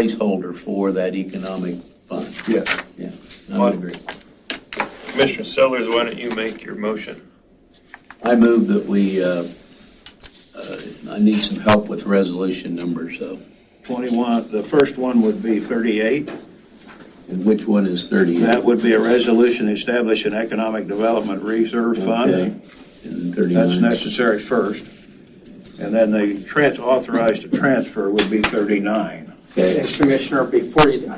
placeholder for that economic fund. Yes. Yeah, I would agree. Commissioner Sellers, why don't you make your motion? I move that we, uh, uh, I need some help with resolution number, so. 21, the first one would be 38. And which one is 38? That would be a resolution establishing economic development reserve Okay. fund. And then That's 39. necessary first. And then the trans, authorized to transfer would be 39. Okay, And Commissioner, before you,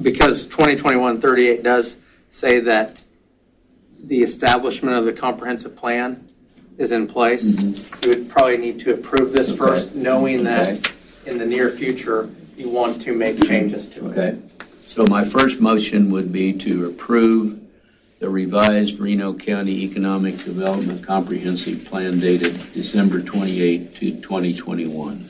because 2021-38 does say that the establishment of the comprehensive plan is in place, you would probably need to approve this first, knowing that in the near future, you want to make changes to it. okay. So my first motion would be to approve the revised Reno County Economic Development Comprehensive Plan dated December 28 to 2021.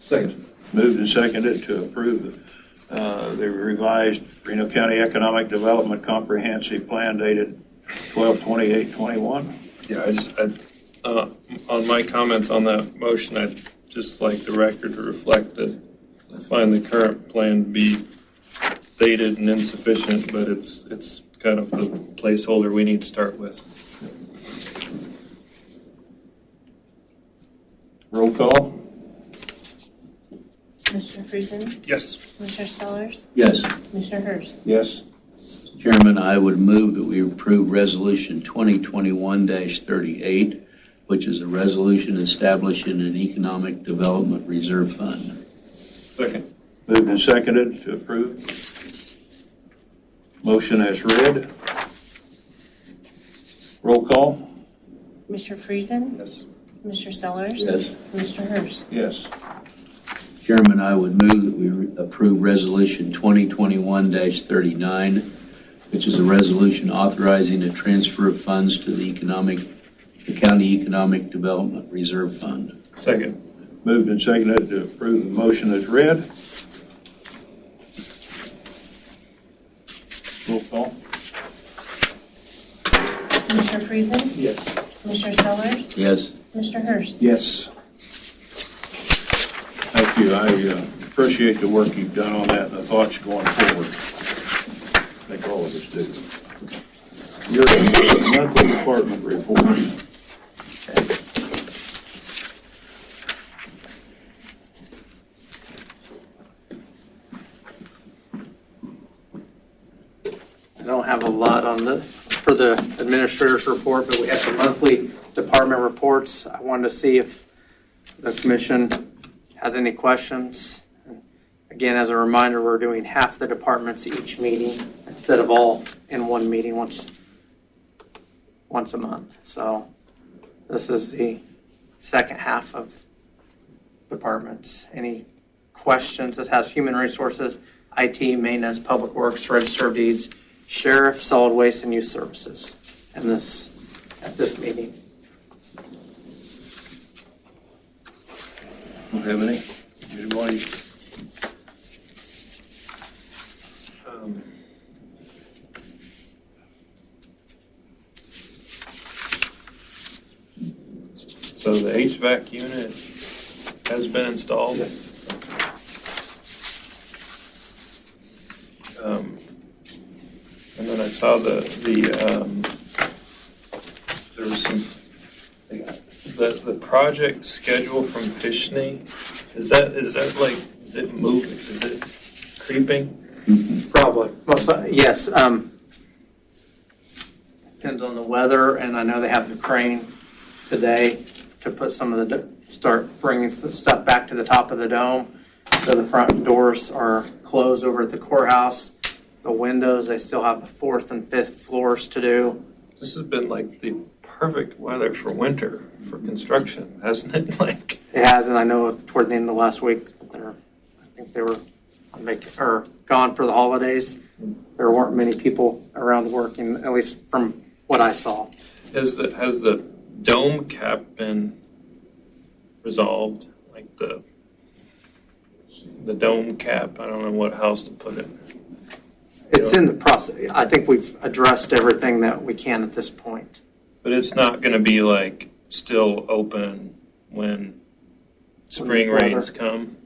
Second. Moved and seconded to approve uh, the revised Reno County Economic Development Comprehensive Plan dated 12/28/21. Yeah, I just, I. Uh, on my comments on that motion, I'd just like the record to reflect that I find the current plan to be dated and insufficient, but it's, it's kind of the placeholder we need to start with. Roll call? Commissioner Friesen, Yes. Commissioner Sellers, Yes. Commissioner Hurst, Yes. Chairman, I would move that we approve Resolution 2021-38, which is a resolution establishing an economic development reserve fund. Second. Moved and seconded to approve. Motion as read. Roll call? Commissioner Friesen, Yes. Commissioner Sellers. Yes. Commissioner Hurst, Yes. Chairman, I would move that we re- approve Resolution 2021-39, which is a resolution authorizing a transfer of funds to the economic, the county economic development reserve fund. Second. Moved and seconded to approve the motion as read. Roll call? Commissioner Friesen, Yes. Commissioner Sellers, Yes. Commissioner Hurst. Yes. Thank you. I uh, appreciate the work you've done on that and the thoughts going forward. I think all of us do. Your monthly department report. I don't have a lot on the, for the administrator's report, but we have the monthly department reports. I wanted to see if the commission has any questions. Again, as a reminder, we're doing half the departments each meeting instead of all in one meeting once, once a month. So this is the second half of departments. Any questions? This has human resources, IT, maintenance, public works, register of deeds, sheriff, solid waste, and youth services in this, at this meeting. Don't have any? Anybody? Um, So the HVAC unit has been installed? Yes. And Um, then I saw the, the, um, there was some, the, the project schedule from Fishney, is that, is that like, is it moving, is it creeping? Probably. Most, yes, um, depends on the weather, and I know they have the crane today to put some of the, d- start bringing th- stuff back to the top of the dome. So the front doors are closed over at the courthouse. The windows, they still have the fourth and fifth floors to do. This has been like the perfect weather for winter for construction, hasn't it? Like, It has, and I know toward the end of last week, they're, I think they were on vac, or gone for the holidays. There weren't many people around working, at least from what I saw. has the, has the dome cap been resolved? Like the, the dome cap, I don't know what house to put it. It's in the process. I think we've addressed everything that we can at this point. But it's not gonna be like still open when spring Weather. rains come.